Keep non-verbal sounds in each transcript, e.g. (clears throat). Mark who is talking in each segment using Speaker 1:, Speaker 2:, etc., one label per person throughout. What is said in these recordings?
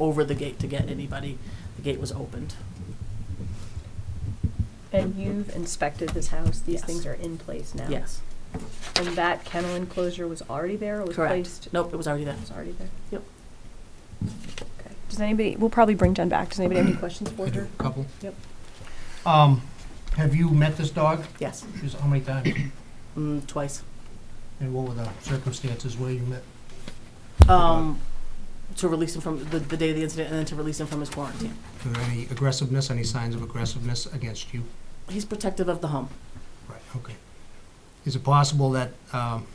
Speaker 1: over the gate to get anybody. The gate was opened.
Speaker 2: And you've inspected this house, these
Speaker 1: Yes.
Speaker 2: things are in place now?
Speaker 1: Yes,
Speaker 2: And that kennel enclosure was already there or was
Speaker 1: Correct.
Speaker 2: placed?
Speaker 1: nope, it was already there.
Speaker 2: It was already there?
Speaker 1: Yep.
Speaker 2: Okay. Does anybody, we'll probably bring Jen back. Does anybody have any questions for
Speaker 1: (clears throat)
Speaker 2: her?
Speaker 3: Couple.
Speaker 2: Yep.
Speaker 3: Um, have you met this dog?
Speaker 1: Yes,
Speaker 3: She's, how many times?
Speaker 1: mm, twice.
Speaker 3: And what were the circumstances where you met?
Speaker 1: Um, to release him from the, the day of the incident, and then to release him from his quarantine.
Speaker 3: Were there any aggressiveness, any signs of aggressiveness against you?
Speaker 1: He's protective of the home.
Speaker 3: Right, okay. Is it possible that, um,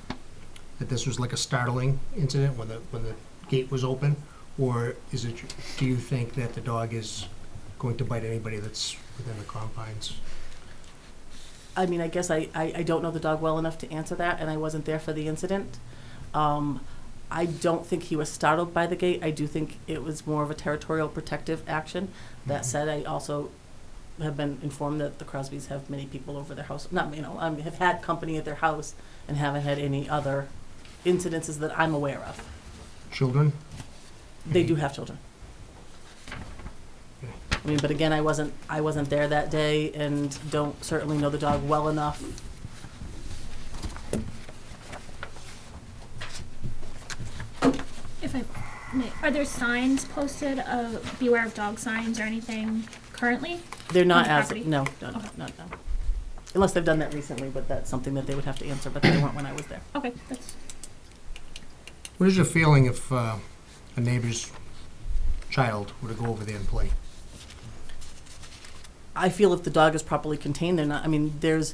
Speaker 3: that this was like a startling incident when the, when the gate was open? Or is it, do you think that the dog is going to bite anybody that's within the confines?
Speaker 1: I mean, I guess I, I, I don't know the dog well enough to answer that, and I wasn't there for the incident. Um, I don't think he was startled by the gate. I do think it was more of a territorial protective action.
Speaker 4: Mm-hmm.
Speaker 1: That said, I also have been informed that the Crosbys have many people over their house. Not, you know, um, have had company at their house and haven't had any other incidences that I'm aware of.
Speaker 3: Children?
Speaker 4: Mm-hmm.
Speaker 1: They do have children. I mean, but again, I wasn't, I wasn't there that day and don't certainly know the dog well enough.
Speaker 4: If I may, are there signs posted of beware of dog signs or anything currently?
Speaker 1: They're not
Speaker 4: the
Speaker 1: as,
Speaker 4: property?
Speaker 1: no, no, no, no, no. Unless they've done that recently, but that's something that they would have to answer, but they weren't when I was there.
Speaker 4: Okay, that's,
Speaker 3: What is your feeling if uh, a neighbor's child were to go over there and play?
Speaker 1: I feel if the dog is properly contained, they're not, I mean, there's,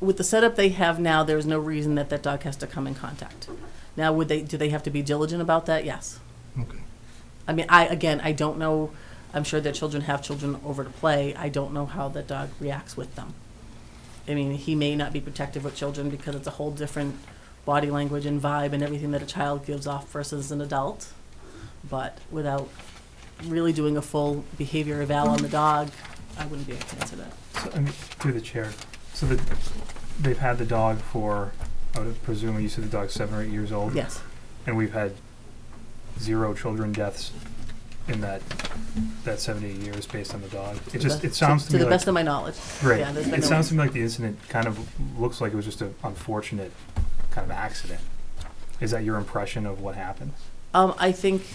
Speaker 1: with the setup they have now, there's no reason that that dog has to come in contact. Now, would they, do they have to be diligent about that? Yes.
Speaker 3: Okay.
Speaker 1: I mean, I, again, I don't know, I'm sure that children have children over to play, I don't know how the dog reacts with them. I mean, he may not be protective with children because it's a whole different body language and vibe and everything that a child gives off versus an adult. But without really doing a full behavior eval on the dog, I wouldn't be able to answer that.
Speaker 5: So, I mean, through the chair, so that they've had the dog for, I would presume you said the dog's seven or eight years old?
Speaker 1: Yes,
Speaker 5: And we've had zero children deaths in that, that seventy years based on the dog. It just, it sounds to
Speaker 1: to
Speaker 5: me
Speaker 1: the
Speaker 5: like,
Speaker 1: best of my knowledge.
Speaker 5: right,
Speaker 1: yeah, there's been
Speaker 5: it
Speaker 1: no-
Speaker 5: sounds to me like the incident kind of looks like it was just an unfortunate kind of accident. Is that your impression of what happened?
Speaker 1: Um, I think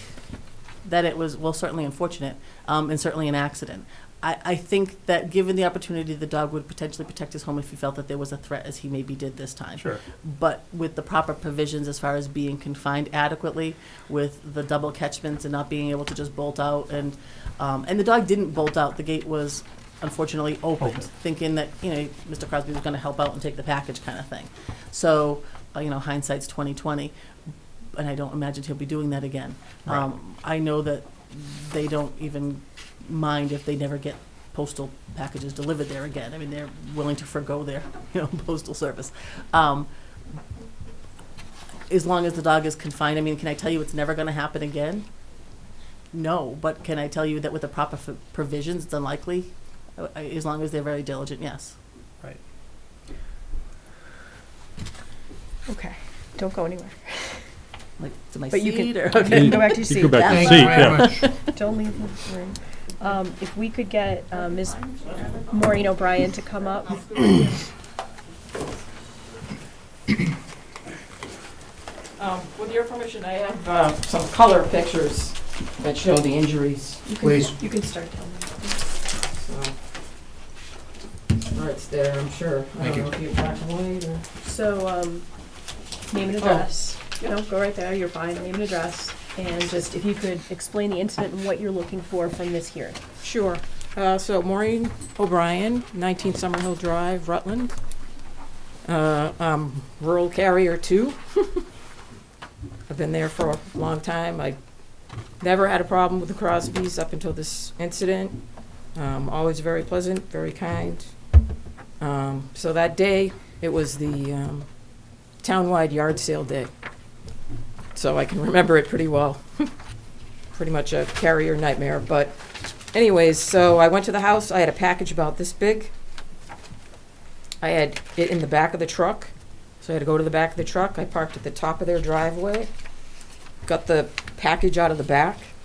Speaker 1: that it was, well, certainly unfortunate, um, and certainly an accident. I, I think that given the opportunity, the dog would potentially protect his home if he felt that there was a threat, as he maybe did this time.
Speaker 5: Sure.
Speaker 1: But with the proper provisions as far as being confined adequately, with the double catchments and not being able to just bolt out, and, um, and the dog didn't bolt out, the gate was unfortunately opened,
Speaker 5: Open.
Speaker 1: thinking that, you know, Mr. Crosby was gonna help out and take the package kind of thing. So, uh, you know, hindsight's twenty-twenty, and I don't imagine he'll be doing that again.
Speaker 5: Right.
Speaker 1: Um, I know that they don't even mind if they never get postal packages delivered there again. I mean, they're willing to forego their, (laughs) you know, postal service. Um, as long as the dog is confined, I mean, can I tell you it's never going to happen again? No, but can I tell you that with the proper f- provisions, it's unlikely? Uh, uh, As long as they're very diligent, yes.
Speaker 2: Okay, don't go anywhere.
Speaker 1: Like, to my
Speaker 2: But you can-
Speaker 1: seat or?
Speaker 2: (laughs) You can go back to your
Speaker 6: You go
Speaker 2: seat.
Speaker 6: back to
Speaker 1: That's
Speaker 6: your
Speaker 3: Thank
Speaker 6: seat,
Speaker 3: you
Speaker 6: yeah.
Speaker 3: very much.
Speaker 2: Don't leave the room. Um, if we could get, um, Ms. Maureen O'Brien to come up.
Speaker 7: Um, With your permission, I have uh, some color pictures that show the injuries.
Speaker 2: You can-
Speaker 3: Please.
Speaker 2: You can start telling
Speaker 7: So, Or it's there, I'm sure. I
Speaker 3: Thank you.
Speaker 7: don't know if you back away or-
Speaker 2: So, um, name and
Speaker 7: Oh.
Speaker 2: address. No, go right there, you're fine, name and address. And just if you could explain the incident and what you're looking for from this hearing.
Speaker 7: Sure. Uh, So Maureen O'Brien, 19 Summerhill Drive, Rutland. Uh, I'm Rural carrier too. I've been there for a long time. I never had a problem with the Crosbys up until this incident. Um, Always very pleasant, very kind. Um, So that day, it was the um, townwide yard sale day. So I can remember it pretty well. (laughs) Pretty much a carrier nightmare, but Anyways, so I went to the house. I had a package about this big. I had it in the back of the truck. So I had to go to the back of the truck. I parked at the top of their driveway. Got the package out of the back.